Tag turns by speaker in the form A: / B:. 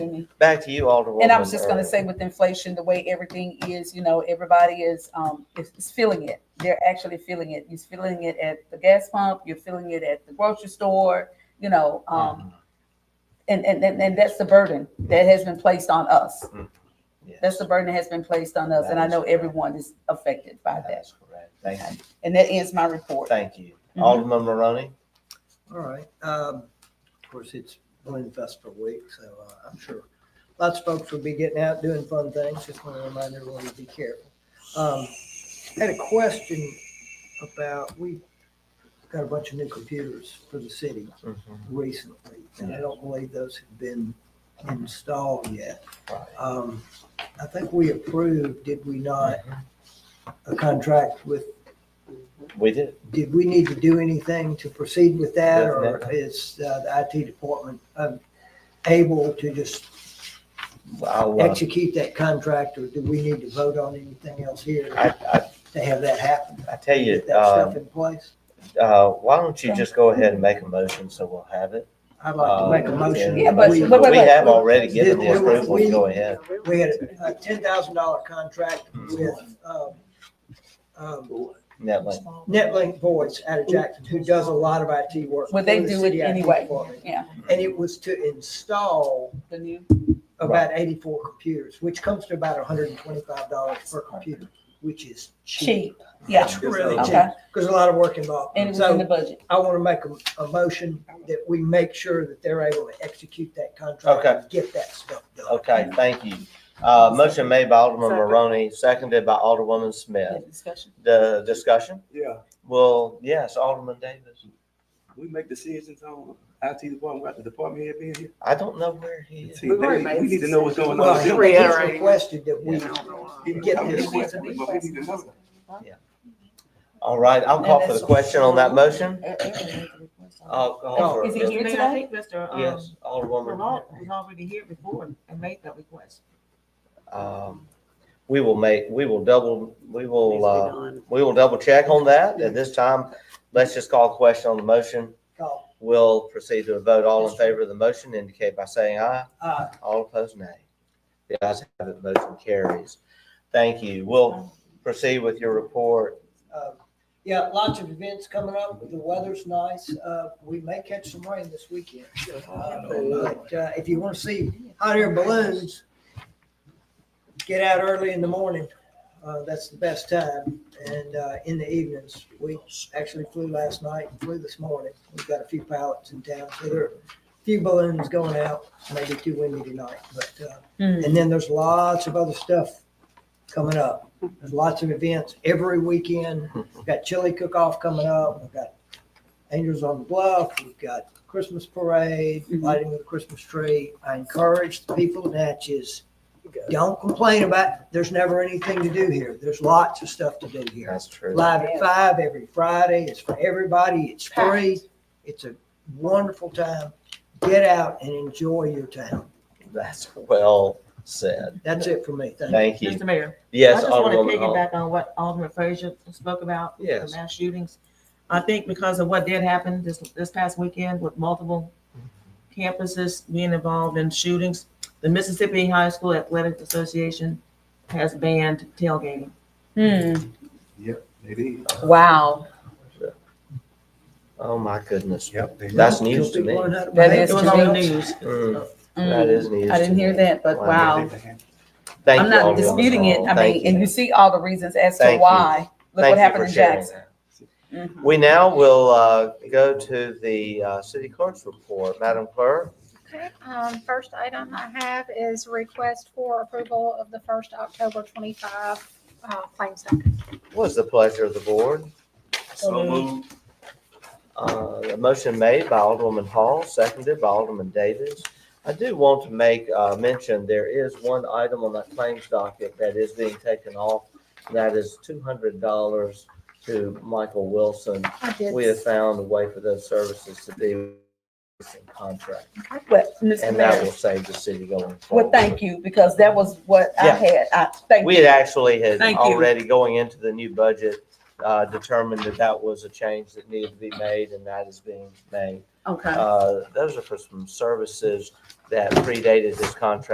A: Back to you, Alderwoman.
B: And I was just gonna
A: Earl.
B: say with inflation, the way everything is, you know, everybody is, um, is is feeling it. They're actually feeling it. You're feeling it at the gas pump, you're feeling it at the grocery store, you know,
A: Mm-hmm.
B: um, and, and, and, and that's the burden that has been placed on us.
A: Mm-hmm. Yes,
B: That's the burden that has been placed on us, and I know everyone is affected by that.
A: That's correct. Thank you.
B: And that ends my report.
A: Thank you.
B: Mhm.
A: Alderman Maroney?
C: All right. Um, of course, it's Blend Festival week, so uh, I'm sure lots of folks will be getting out doing fun things. Just want to remind everyone to be careful. Um, I had a question about, we got a bunch of new computers for the city
B: Mm-hmm.
C: recently, and I don't believe those have been installed yet.
A: Right.
C: Um, I think we approved, did we not, a contract with
A: We did.
C: did we need to do anything to proceed with that, or
A: Definitely.
C: is uh, the IT department um, able to just
A: I'll, uh,
C: execute that contract, or do we need to vote on anything else here
A: I,
C: to
A: I,
C: have that happen?
A: I tell you,
C: Get that
A: uh,
C: stuff in place?
A: uh, why don't you just go ahead and make a motion so we'll have it?
C: I'd like to make a
A: Uh,
C: motion.
A: and
B: Yeah, but-
A: We
C: We-
B: but- but-
A: we
B: but-
A: have already given the
C: Did- did we-
A: approval to go ahead.
C: We had a ten thousand dollar contract
A: Hmm.
C: with um, um,
A: Netlink.
C: Netlink Voice out of Jackson, who does a lot of IT work.
B: Well, they
C: for the
B: do it
C: city IT
B: anyway.
C: department.
B: Yeah,
C: And it was to install
B: the new,
C: about eighty-four computers, which comes to about hundred and twenty-five dollars per computer, which is
B: cheap,
C: cheap.
B: yeah,
C: It's really cheap,
B: okay,
C: because a lot of work involved.
B: and it was in the
C: So
B: budget.
C: I want to make a, a motion that we make sure that they're able to execute that contract and get that stuff done.
A: Okay, thank you. Uh, motion made by Alderman Maroney, seconded by Alderwoman
B: Yeah,
A: Smith.
B: discussion.
A: The discussion?
D: Yeah,
A: Well, yes, Alderman Davis.
D: we make decisions on IT department, got the department head being here.
A: I don't know where he is.
D: See, they- We need to know what's going
C: Well,
D: on.
C: he-
D: with them.
C: he's requested that we,
D: He
C: get
D: I'm
C: this.
D: just waiting, but we need to know.
A: All right, I'll call for the question on that motion. I'll call for.
B: Oh, Is he here
E: Mayor, I
B: today?
E: think Mr. Um,
A: Yes, Alderwoman.
E: Lamarck was already here before and made that request.
A: Um, We will make, we will double, we will,
E: Needs to be
A: uh,
E: done.
A: we will double check on that. At this time, let's just call a question on the motion.
C: call,
A: We'll proceed to a vote. All in favor of the motion indicate by saying aye.
C: uh,
A: All opposed, nay. The ayes have it, motion carries. Thank you. We'll proceed with your report.
C: uh, yeah, lots of events coming up, the weather's nice, uh, we may catch some rain this weekend. Uh, But uh, if you want to see hot air balloons, get out early in the morning. Uh, That's the best time. And uh, in the evenings, we actually flew last night and flew this morning. We've got a few pilots in town, so there are a few balloons going out, maybe too windy tonight. But, uh,
B: Hmm.
C: and then there's lots of other stuff coming up. There's lots of events every weekend. We've got chili cook-off coming up. We've got Angels on the Bluff. We've got Christmas parade,
B: Mhm.
C: lighting of the Christmas tree. I encourage the people in Natchez, don't complain about, there's never anything to do here. There's lots of stuff to do here.
A: That's true.
C: Live at five every Friday. It's for everybody. It's free. It's a wonderful time. Get out and enjoy your town.
A: That's well said.
C: That's it for me. Thank you.
A: Thank you.
E: Mr. Mayor, I
A: Yes,
E: just want to
A: Alderwoman Hall.
E: piggyback on what Alderman Frazier spoke about, the
A: Yes,
E: mass shootings. I think because of what did happen this, this past weekend with multiple campuses being involved in shootings, the Mississippi High School Athletic Association has banned tailgating.
B: Hmm,
D: Yep, they did.
B: wow,
A: oh my goodness.
D: Yep. they did.
A: That's news to me.
C: People learn how to
B: That
C: behave
B: is
E: It was on the
C: themselves.
E: news.
A: Mm, That
B: Mm.
A: is news.
B: I didn't
A: to
B: hear
A: me.
B: that, but wow.
A: Thank
B: I'm
A: you,
B: not
A: Alderwoman
B: disputing it.
A: Hall.
B: I
A: Thank
B: mean, and you see all the reasons as to
A: Thank you.
B: why. Look what
A: Thank you
B: happened
A: for
B: in
A: sharing
B: Jackson.
A: that.
B: Mhm.
A: We now will uh, go to the uh, city clerk's report. Madam Clerk?
F: Okay, um, first item I have is request for approval of the first October twenty-five, uh, claims document.
A: What is the pleasure of the board?
D: So moved.
A: Uh, A motion made by Alderwoman Hall, seconded by Alderman Davis. I do want to make uh, mention, there is one item on that claims docket that is being taken off. and That is $200 to Michael Wilson.
F: I did,
A: We have found a way for those services to be in contract,
B: But, Mr.
A: and that
B: Mayor,
A: will save the city going forward.
B: well, thank you, because that was what I
A: Yeah.
B: had. I, thank
A: We had
B: you.
A: actually had
E: Thank you.
A: already going into the new budget, uh, determined that that was a change that needed to be made and that is being made.
B: Okay.
A: Uh, Those are for some services that predated this contract